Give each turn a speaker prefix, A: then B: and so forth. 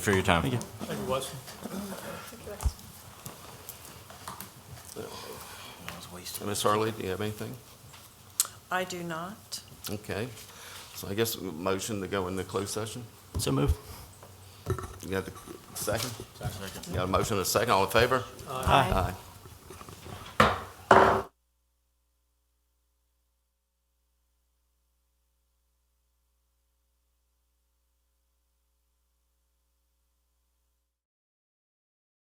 A: for your time. Thank you.
B: Thank you, Wes.
C: Ms. Harley, do you have anything?
D: I do not.
C: Okay. So I guess motion to go into closed session?
A: So move.
C: You got the second? Got a motion and a second, all in favor? Aye.